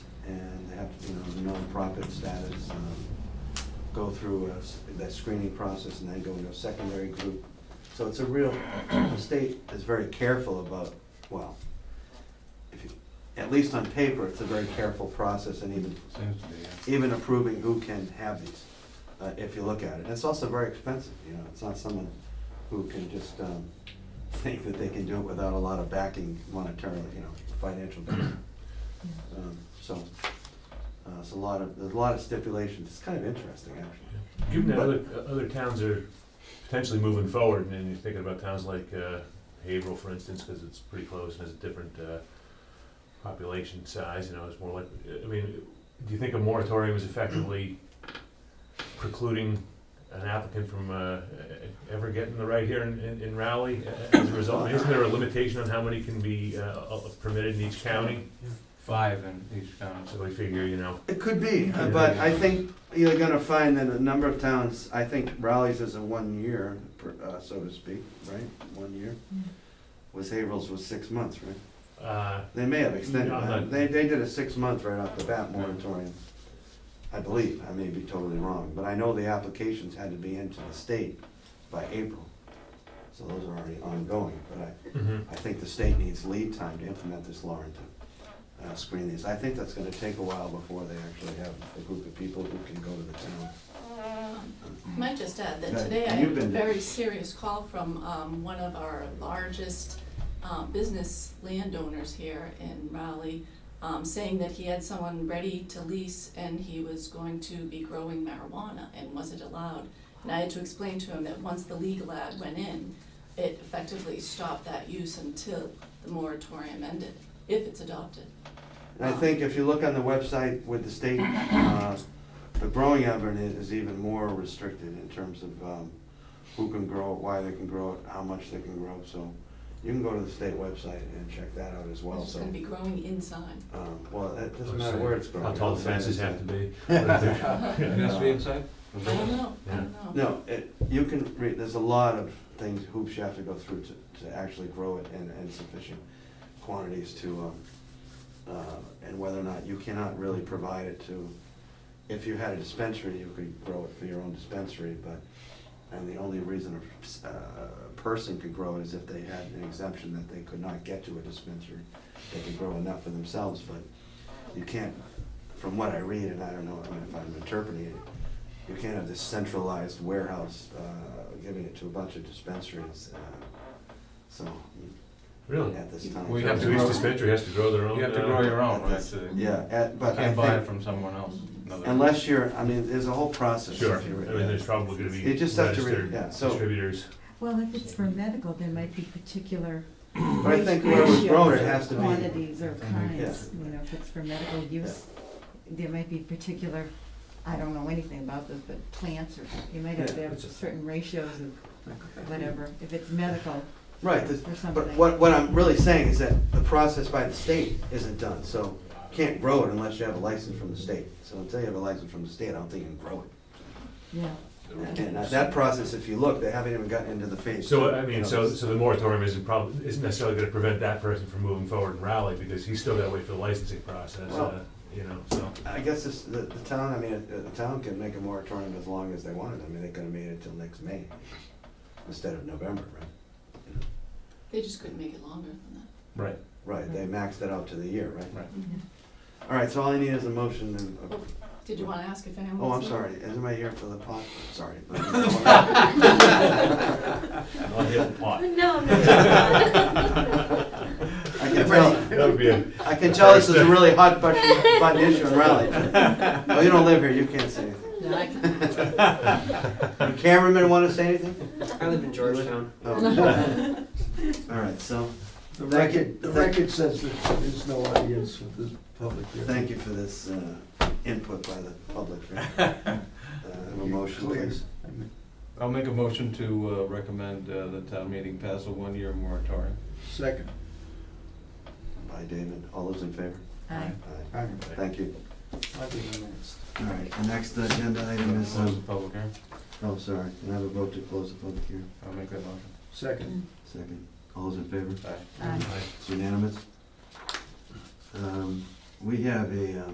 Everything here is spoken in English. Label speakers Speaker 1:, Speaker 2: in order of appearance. Speaker 1: nonprofit status, um, go through a s- that screening process and then go into a secondary group. So it's a real, the state is very careful about, well, if you, at least on paper, it's a very careful process and even,
Speaker 2: Seems to be, yeah.
Speaker 1: even approving who can have these, uh, if you look at it. It's also very expensive, you know, it's not someone who can just um, think that they can do it without a lot of backing monetarily, you know, financial backing. Um, So, uh, it's a lot of, there's a lot of stipulations, it's kind of interesting, actually.
Speaker 3: Given that other, uh, other towns are potentially moving forward, and you're thinking about towns like uh, Haverhill, for instance, because it's pretty close and has a different uh, population size, you know, it's more like, I mean, do you think a moratorium is effectively precluding an applicant from uh, ever getting the right here in- in in Raleigh as a result? I mean, Isn't there a limitation on how many can be uh, permitted in each county?
Speaker 2: Five in each town, so
Speaker 3: So we figure, you know,
Speaker 1: It could be, uh, but I think you're gonna find that a number of towns, I think Raleigh's is a one year, per- uh, so to speak, right? One year. Was Haverhill's was six months, right?
Speaker 3: uh,
Speaker 1: They may have extended,
Speaker 3: No,
Speaker 1: it.
Speaker 3: but-
Speaker 1: they, they did a six month right off the bat moratorium. I believe, I may be totally wrong, but I know the applications had to be into the state by April. So those are already ongoing, but I,
Speaker 3: mhm.
Speaker 1: I think the state needs lead time to implement this law and to uh, screen these. I think that's gonna take a while before they actually have a group of people who can go to the town.
Speaker 4: Uh, Might just add that
Speaker 1: Yeah,
Speaker 4: today I
Speaker 1: you've
Speaker 4: had a
Speaker 1: been-
Speaker 4: very serious call from um, one of our largest uh, business landowners here in Raleigh, um, saying that he had someone ready to lease and he was going to be growing marijuana and wasn't allowed. And I had to explain to him that once the legal ad went in, it effectively stopped that use until the moratorium ended, if it's adopted.
Speaker 1: And I think if you look on the website with the state, uh, the growing of it is even more restricted in terms of um, who can grow it, why they can grow it, how much they can grow, so you can go to the state website and check that out as well,
Speaker 4: It's just
Speaker 1: so.
Speaker 4: gonna be growing inside.
Speaker 1: um, Well, it doesn't matter where it's grown.
Speaker 3: how tall the fences have to be. Yeah.
Speaker 2: it has to be inside?
Speaker 4: I don't know, I don't know.
Speaker 1: No, it, you can read, there's a lot of things, hoops you have to go through to, to actually grow it in, in sufficient quantities to, um, uh, and whether or not, you cannot really provide it to, if you had a dispensary, you could grow it for your own dispensary, but, and the only reason a, uh, a person could grow it is if they had an exemption that they could not get to a dispensary. They could grow enough for themselves, but you can't, from what I read, and I don't know if I'm interpreting it, you can't have this centralized warehouse, uh, giving it to a bunch of dispensaries, uh, so,
Speaker 3: Really?
Speaker 1: at this time.
Speaker 2: We have to
Speaker 3: So each
Speaker 2: grow-
Speaker 3: dispensary has to grow their own.
Speaker 2: You have to
Speaker 3: uh,
Speaker 2: grow your own,
Speaker 1: At
Speaker 2: right?
Speaker 1: this-
Speaker 2: so You
Speaker 1: Yeah, at, but I
Speaker 2: can't buy it
Speaker 1: think,
Speaker 2: from someone else. another-
Speaker 1: unless you're, I mean, there's a whole process. if
Speaker 3: Sure, I
Speaker 1: you
Speaker 3: mean,
Speaker 1: re-
Speaker 3: there's probably gonna be
Speaker 1: You just have to read-
Speaker 3: registered
Speaker 1: yeah, so-
Speaker 3: distributors.
Speaker 5: Well, if it's for medical, there might be particular
Speaker 1: But I think where it was grown, it has to be,
Speaker 5: quantities or kinds, you know, if it's for medical use, there might be particular, I don't know anything about this, but plants or, you might have to have certain ratios of whatever, if it's medical
Speaker 1: right, this-
Speaker 5: or something.
Speaker 1: but what, what I'm really saying is that the process by the state isn't done, so you can't grow it unless you have a license from the state. So until you have a license from the state, I don't think you can grow it.
Speaker 5: Yeah,
Speaker 1: And at that process, if you look, they haven't even gotten into the phase.
Speaker 3: So,
Speaker 1: two,
Speaker 3: I
Speaker 1: you
Speaker 3: mean,
Speaker 1: know,
Speaker 3: so,
Speaker 1: this-
Speaker 3: so the moratorium isn't prob, isn't necessarily gonna prevent that person from moving forward and rally, because he's still gotta wait for the licensing process,
Speaker 1: Well-
Speaker 3: uh, you know, so.
Speaker 1: I guess this, the, the town, I mean, uh, the town can make a moratorium as long as they wanted, I mean, they could have made it till next May, instead of November, right?
Speaker 4: They just couldn't make it longer than
Speaker 2: Right.
Speaker 1: Right, they maxed it out to the year, right?
Speaker 2: Right.
Speaker 4: that.
Speaker 1: All right, so all I need is a motion and,
Speaker 4: Oh, Did you wanna ask if anyone
Speaker 1: oh, I'm
Speaker 4: wants to?
Speaker 1: sorry, am I here for the pot? Sorry. but-
Speaker 3: I'll hit the pot.
Speaker 6: No, no.
Speaker 1: I can tell,
Speaker 3: That would be a,
Speaker 1: I can tell this is a really hot button, button issue in Raleigh. Oh, you don't live here, you can't say anything.
Speaker 4: No, I can-
Speaker 1: Do Cameramen wanna say anything?
Speaker 7: I live in Georgetown.
Speaker 1: Oh. All right, so,
Speaker 8: The
Speaker 1: Thank you.
Speaker 8: record, the
Speaker 1: Thank-
Speaker 8: record says that there is no audience with the public here.
Speaker 1: Thank you for this uh, input by the public. right? Uh, have a motion, please.
Speaker 2: I'll make a motion to uh, recommend uh, the town meeting pass a one-year moratorium.
Speaker 8: Second.
Speaker 1: By David. All those in favor?
Speaker 5: I,
Speaker 1: Aye.
Speaker 8: I
Speaker 1: Thank you.
Speaker 8: think I'm next.
Speaker 1: All right, the next agenda item is,
Speaker 2: Close the
Speaker 1: um,
Speaker 2: public hearing.
Speaker 1: oh, sorry, can I have a vote to close the public hearing?
Speaker 2: I'll make that motion.
Speaker 8: Second.
Speaker 1: Second. All those in favor?
Speaker 2: Aye.
Speaker 5: I.
Speaker 1: It's unanimous. Um, We have a um,